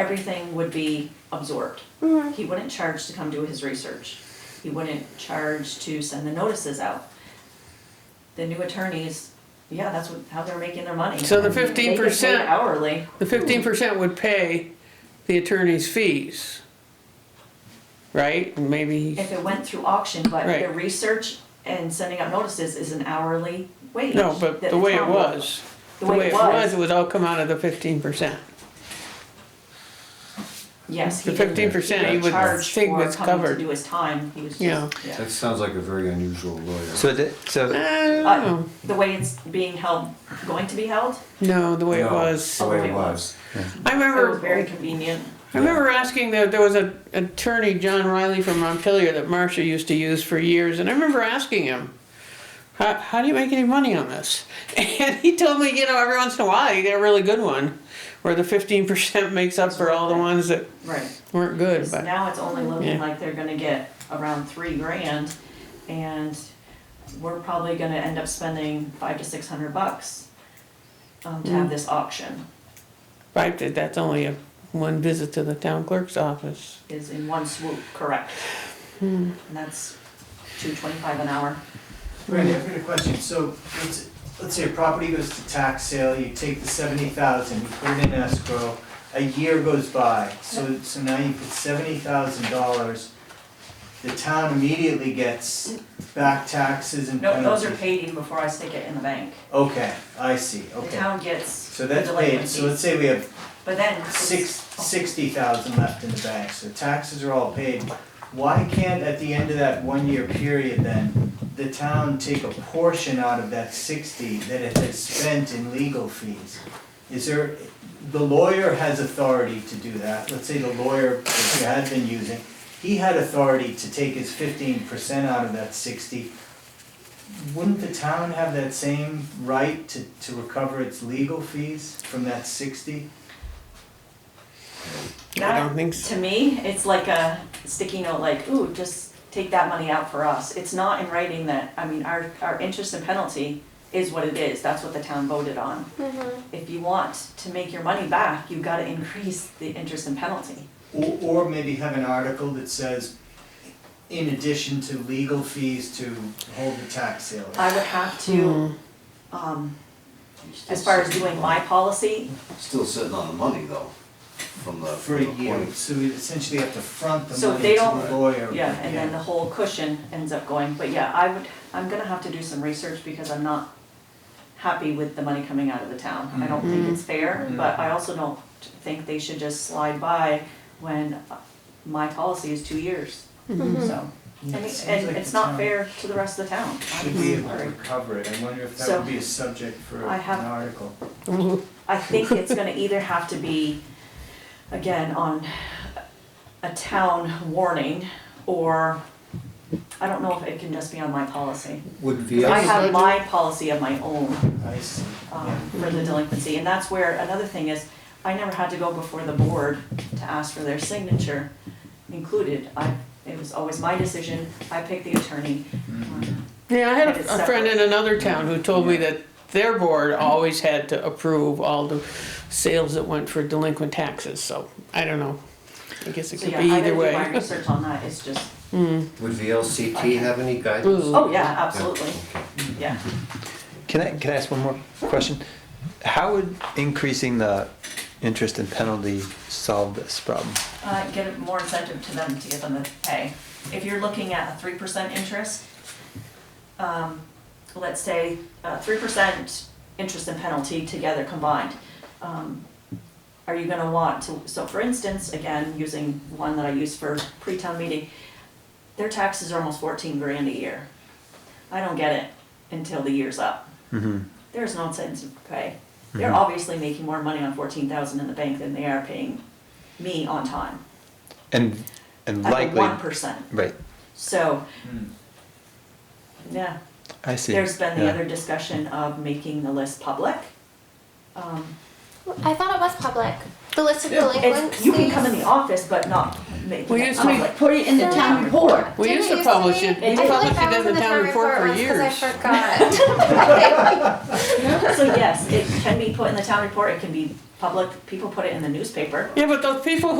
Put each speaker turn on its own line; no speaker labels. everything would be absorbed. He wouldn't charge to come do his research. He wouldn't charge to send the notices out. The new attorneys, yeah, that's what, how they're making their money.
So the
They get paid
15%
Hourly,
The fifteen percent would pay the attorney's fees, right? And Maybe,
if it went through auction, but
Right.
the research and sending out notices is an hourly wage.
no, but
that
the way it
town-
was, the way it was, it would all come out of the fifteen percent.
Yes, he
The
didn't, he
15% you
didn't
would
charge
think
for
was
coming to
covered.
do his time, he was
Yeah.
just, yeah.
That sounds like a very unusual lawyer.
So, the, so
I don't
Uh,
know,
The way it's being held, going to be held,
no, the way it
No, Oh.
was.
The way it was.
I
it was very
remember,
convenient.
I remember asking, that there was an attorney, John Riley from Montpelier, that Marcia used to use for years, and I remember asking him, how, how do you make any money on this? And he told me, you know, every once in a while, you get a really good one, where the fifteen percent makes up for all the ones that
Right,
weren't good,
'Cause
but.
now it's only looking
Yeah.
like they're gonna get around three grand, and we're probably gonna end up spending five to six hundred bucks um, to
Mm.
have this auction,
Right, that- that's only a, one visit to the town clerk's office.
is in one swoop, correct?
Hmm.
And that's two twenty-five an hour.
Randy, I've got a question, so let's, let's say a property goes to tax sale, you take the seventy thousand, you put it in escrow, a year goes by, so, so now you put seventy thousand dollars, the town immediately gets back taxes and
No,
penalties.
those are paid even before I stick it in the bank.
Okay, I see,
The
okay,
town gets
so
the
that's paid, so
delinquencies,
let's say we have
but then. it's- oh.
six, sixty thousand left in the bank, so taxes are all paid. Why can't, at the end of that one-year period then, the town take a portion out of that sixty that it has spent in legal fees? Is there, the lawyer has authority to do that, let's say the lawyer that you had been using, he had authority to take his fifteen percent out of that sixty. Wouldn't the town have that same right to, to recover its legal fees from that sixty?
I
That,
don't think so.
to me, it's like a sticky note, like, ooh, just take that money out for us. It's not in writing that, I mean, our, our interest and penalty is what it is, that's what the town voted on. If you want to make your money back, you've gotta increase the interest and penalty.
Or, or maybe have an article that says, in addition to legal fees to hold the tax sale.
I would have to,
Hmm.
um, as far as doing my policy,
Still sitting on the money though, from the.
For
from
a
the
year,
point.
so we essentially have to front the
So
money
they
to
don't-
the lawyer.
yeah, and then the whole cushion ends up going, but yeah, I would, I'm gonna have to do some research because I'm not happy with the money coming out of the town. I don't think
Mm-hmm.
it's fair, but I also don't think they should just slide by when my policy is two years, so. And,
Yeah, it seems
and
like
it's
the
not
town
fair to the rest of the town.
Should be
I'm
able to
sorry.
recover it, I wonder if that
So,
would be a subject for
I have-
an article.
I think it's gonna either have to be, again, on a town warning, or, I don't know if it can just be on my policy.
Would
I
VX,
have my policy of my own
I see, yeah.
um, for the delinquency, and that's where, another thing is, I never had to go before the board to ask for their signature included. I, it was always my decision, I picked the attorney. Um,
Yeah, I had
It's
a- a friend in another town who told me that their board always had to approve all the sales that went for delinquent taxes, so I don't know. I guess it
So
could
yeah,
be
I
either
gotta do my
way.
research on that, it's just,
would VLCT have any guidance?
Ooh.
oh yeah, absolutely, yeah.
can I, can I ask one more question? How would increasing the interest and penalty solve this problem?
uh, get more incentive to them to get them to pay. If you're looking at a three percent interest, um, let's say, uh, three percent interest and penalty together combined, um, are you gonna want to, so for instance, again, using one that I use for pre-town meeting, their taxes are almost fourteen grand a year. I don't get it until the year's up. There's no incentive to pay. They're obviously making more money on fourteen thousand in the bank than they are paying me on time,
And, and
at the
likely,
one percent.
right,
So,
Hmm.
yeah,
I see.
there's been the
Yeah.
other discussion of making the list public. Um,
I thought it was public. The list of
It's,
delinquents.
you can come in the office, but not make
We
it
used to make-
public.
Put it in the town report.
We
Didn't
used to
it
publish
be?
it,
I
we
feel like
published
that
it in
was
the town report for
once 'cause
years.
I forgot.
So yes, it can be put in the town report, it can be
public, people put it in the newspaper.
Yeah, but those people